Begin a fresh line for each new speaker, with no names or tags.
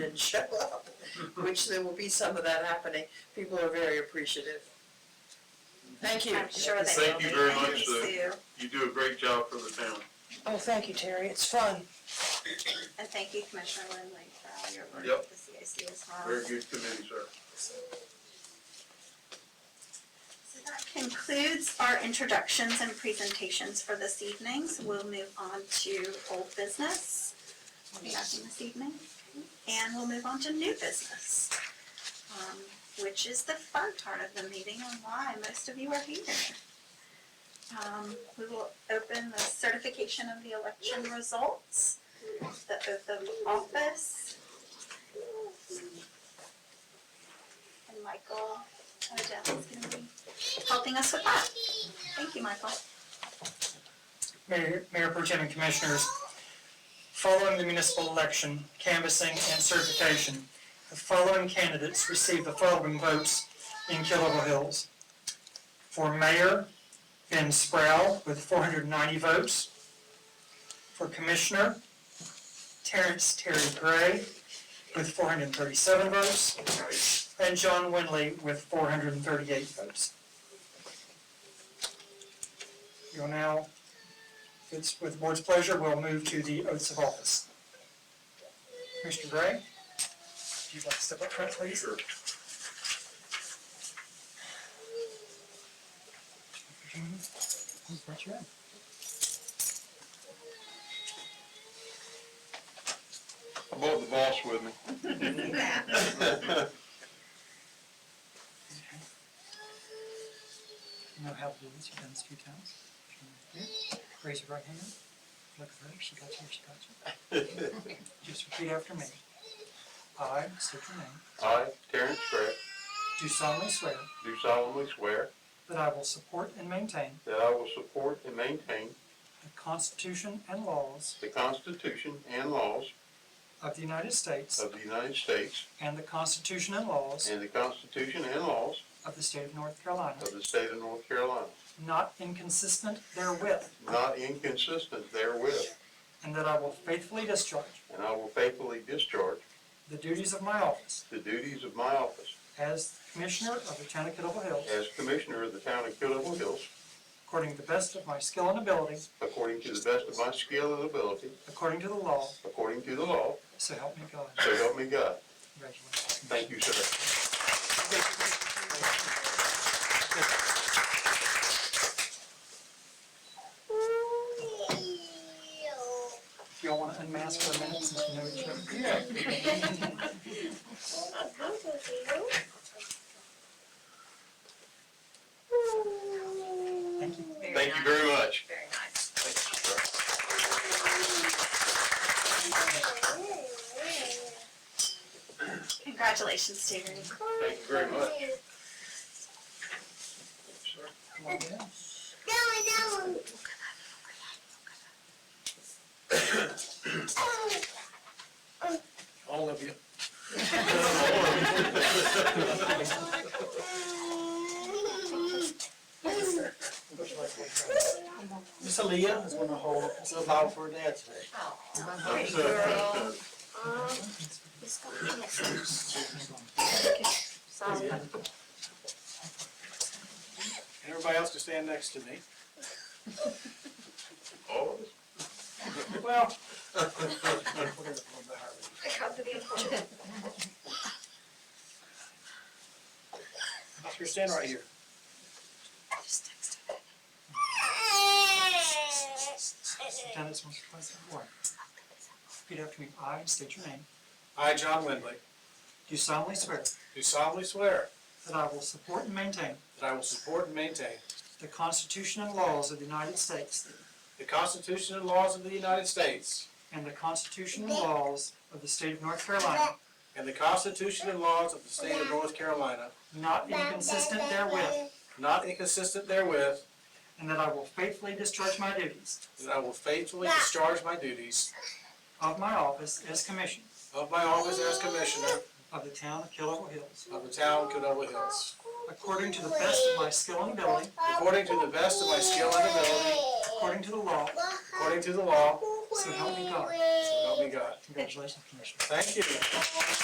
and show up, which there will be some of that happening. People are very appreciative. Thank you.
I'm sure they will
Thank
be.
you very
Thank
much,
you,
uh,
Sue.
You do a great job for the town.
Oh, thank you, Terry. It's fun.
And thank you, Commissioner Lindley, for all your work
Yep.
with the CAC as well.
Very good committee, sir.
So that concludes our introductions and presentations for this evening, so we'll move on to old business. Nothing this evening, and we'll move on to new business, um, which is the fun part of the meeting and why most of you are here. Um, we will open the certification of the election results, the oath of office. And Michael Odell is gonna be helping us with that. Thank you, Michael.
Mayor, Mayor Pro Tem and Commissioners, following the municipal election, canvassing and certification, the following candidates received the following votes in Killable Hills. For mayor, Ben Sproul with four hundred and ninety votes. For commissioner, Terrence Terry Gray with four hundred and thirty-seven votes. And John Winley with four hundred and thirty-eight votes. You'll now if it's with the board's pleasure, we'll move to the oaths of office. Mr. Gray, if you'd like to step up front, please.
Sure. I brought the boss with me.
You know how to do this, you've done this a few times. Good. Raise your right hand. Look at her, she got you, she got you. Just repeat after me. I, state your name,
I, Terrence Gray,
do solemnly swear
do solemnly swear
that I will support and maintain
that I will support and maintain
the Constitution and laws
the Constitution and laws
of the United States
of the United States
and the Constitution and laws
and the Constitution and laws
of the state of North Carolina,
of the state of North Carolina,
not inconsistent therewith,
not inconsistent therewith,
And that I will faithfully discharge
and I will faithfully discharge
the duties of my office
the duties of my office
as Commissioner of the Town of Kittle Hills
as Commissioner of the Town of Killable Hills
according to the best of my skill and ability,
according to the best of my skill and ability,
according to the law,
according to the law,
so help me God.
so help me God.
Congratulations.
Thank you, sir.
If y'all want to unmask for a minute since we know each other. Thank you.
Thank you very much.
Very nice. Congratulations, Terry.
Thank you very much.
Come on in.
All of you. Miss Aaliyah is gonna hold us a vow for her dad today.
Great girl.
And everybody else can stand next to me.
All of us?
Well. You're standing right here.
Just text her.
You've Done this once or twice before. Repeat after me. I state your name.
I, John Windley,
Do solemnly swear
do solemnly swear
that I will support and maintain
that I will support and maintain
the Constitution and laws of the United States
the Constitution and laws of the United States
and the Constitution and laws of the state of North Carolina,
and the Constitution and laws of the state of North Carolina,
not inconsistent therewith,
not inconsistent therewith,
and that I will faithfully discharge my duties
that I will faithfully discharge my duties
of my office as Commissioner
of my office as Commissioner
of the town of Killable Hills,
of the town of Canoga Hills,
according to the best of my skill and ability,
according to the best of my skill and ability,
according to the law,
according to the law,
so help me God.
so help me God.
Congratulations, Commissioner.
Thank you.